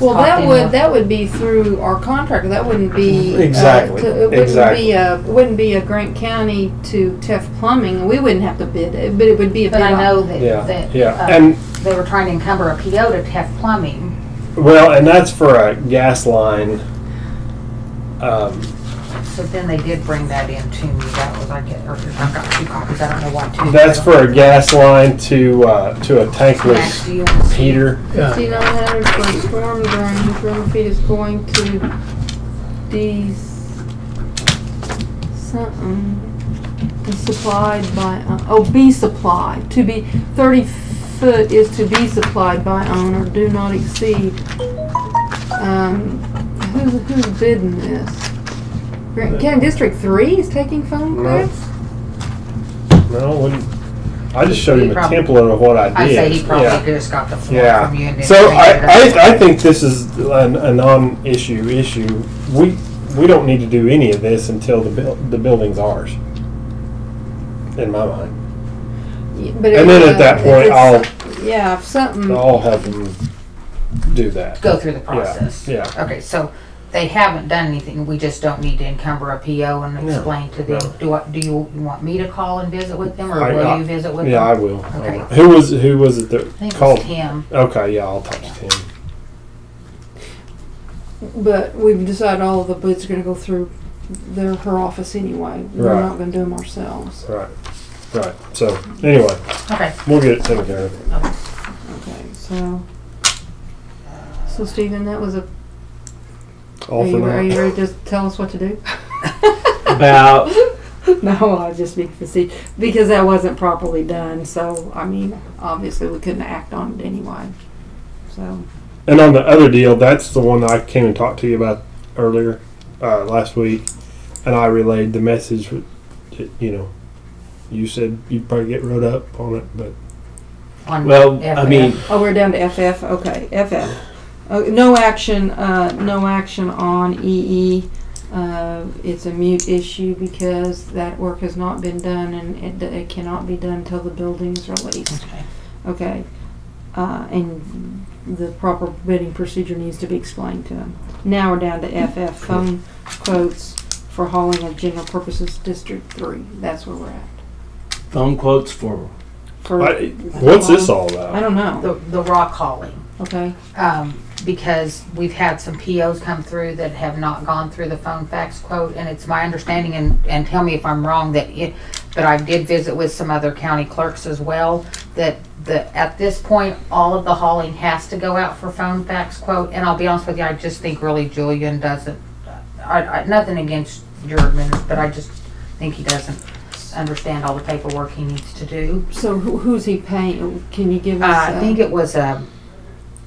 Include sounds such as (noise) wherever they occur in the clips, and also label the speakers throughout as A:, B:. A: Well, that would, that would be through our contractor, that wouldn't be. uh,
B: Exactly,
A: to- It wouldn't
B: exactly.
A: be a, it wouldn't be a Grant County to Tef Plumbing, we wouldn't have to bid it, but it would be a bid.
C: But I
A: op-
C: know that,
B: Yeah,
C: that.
B: yeah.
C: uh,
B: And-
C: They were trying to encumber a PO to have plumbing.
B: Well, and that's for a gas line. Um,
C: So then they did bring that in to me. That was, I get, or I've got two copies. I don't know why two.
B: that's for a gas line to, uh, to a
C: Max, do
B: tankless
C: you want to see?
B: heater.
A: Fifty-nine hundred for a storm drain, whose river feed is going to these, something, be supplied by, uh, oh, be supplied, to be, thirty foot is to be supplied by owner, do not exceed. Um, who's, who's bidding this? Grant County District Three is taking phone
B: Uh, No.
A: calls?
B: No, it wouldn't, I just showed him
C: He
B: a
C: probably-
B: template of what I
C: I
B: did.
C: say he probably
B: Yeah.
C: could have got the floor from you and
B: Yeah,
C: then.
B: so I,
C: cleaned it up.
B: I, I think this is an, a non-issue issue. We, we don't need to do any of this until the buil, the building's ours. In my mind.
A: But
B: And then
A: if,
B: at
A: uh,
B: that
A: if
B: point,
A: it's-
B: I'll,
A: Yeah, if something.
B: I'll help him do that.
C: Mm-hmm. Go through the process.
B: yeah.
C: Okay, so they haven't done anything. We just don't need to encumber a PO and
B: No,
C: explain to them.
B: no.
C: Do I, do you want me to call and visit with them or
B: I-
C: will
B: I-
C: you visit with them?
B: Yeah, I will. I
C: Okay.
B: will. Who was, who was it
C: I think
B: that
C: it was
B: called?
C: Tim.
B: Okay, yeah, I'll talk to Tim.
A: But we've decided all of the bids are gonna go through their, her office anyway. We're
B: Right.
A: not gonna do them ourselves.
B: Right, right. So, anyway,
C: Okay.
B: we'll get it taken care of.
A: Okay, so. So Stephen, that was a, are
B: All for
A: you, are you
B: now.
A: ready to just tell us what to do?
D: about
A: (laughs) No, I was just being facetious, because that wasn't properly done, so, I mean, obviously we couldn't act on it anyway. So,
B: And on the other deal, that's the one I came and talked to you about earlier, uh, last week. And I relayed the message, with- that, you know, you said you'd probably get wrote up on it, but
C: On
D: well i
C: FF.
D: mean
A: oh, we're down to FF, okay, FF. Oh, no action, uh, no action on EE. Uh, it's a mute issue because that work has not been done and it, it cannot be done until the building's released.
C: Okay.
A: Okay, uh, and the proper bidding procedure needs to be explained to them. Now we're down to FF, phone quotes for hauling of general purposes District Three. That's where we're at.
D: phone quotes for
A: For-
B: I, what's this all
A: I
B: about?
A: don't know,
C: The, the rock hauling,
A: okay,
C: um, because we've had some POs come through that have not gone through the phone fax quote, and it's my understanding, and, and tell me if I'm wrong, that it, but I did visit with some other county clerks as well, that the, at this point, all of the hauling has to go out for phone fax quote, and I'll be honest with you, I just think really Julian doesn't, I, I, nothing against your admin, but I just think he doesn't understand all the paperwork he needs to do.
A: so who, who's he paying, can you give us?
C: Uh, I think it was, um,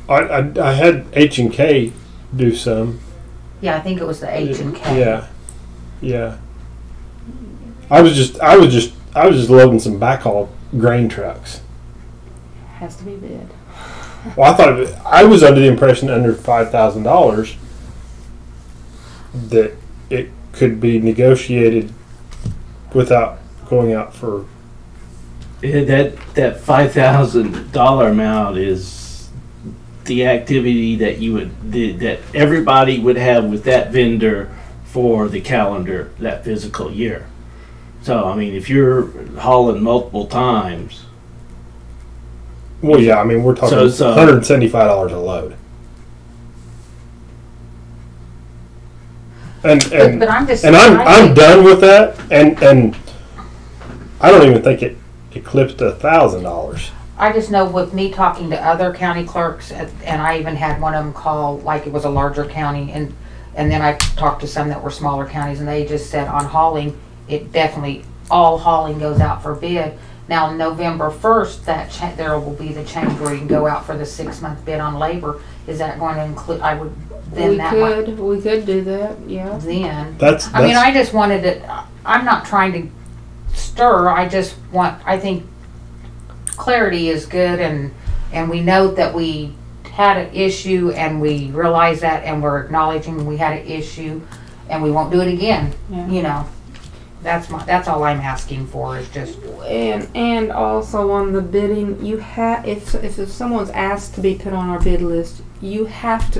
B: I, I, I had H and K do some.
C: Yeah, I think it was the H and K.
B: Yeah, yeah. I was just, I was just, I was just loading some backhaul grain trucks.
A: Has to be bid.
B: Well, I thought it, I was under the impression under five thousand dollars that it could be negotiated without going out for.
D: Yeah, eh, that that five thousand dollar amount is the activity that you would the, that everybody would have with that vendor for the calendar that physical year. So I mean, if you're hauling multiple times,
B: Well, yeah, I mean we're talking
D: So, so-
B: one hundred seventy-five dollars a load. And
C: But,
B: and
C: but I'm just.
B: and I'm
C: I
B: I'm
C: think-
B: done with that. And and I don't even think it eclipsed a thousand dollars.
C: I just know with me talking to other county clerks, and and I even had one of them call, like it was a larger county, and, and then I talked to some that were smaller counties, and they just said on hauling, it definitely, all hauling goes out for bid. Now, November first, that cha, there will be the change where you can go out for the six-month bid on labor. Is that going to include, I would, then
A: We
C: that might,
A: could, we could do that, yeah.
C: then.
B: That's, that's
C: I mean, I just wanted to, I'm not trying to stir, I just want, I think clarity is good and, and we know that we had an issue and we realize that and we're acknowledging we had an issue and we won't do it again,
A: Yeah.
C: you know? That's my, that's all I'm asking for is just,
A: And and also on the bidding, you have if if someone's asked to be put on our bid list, you have to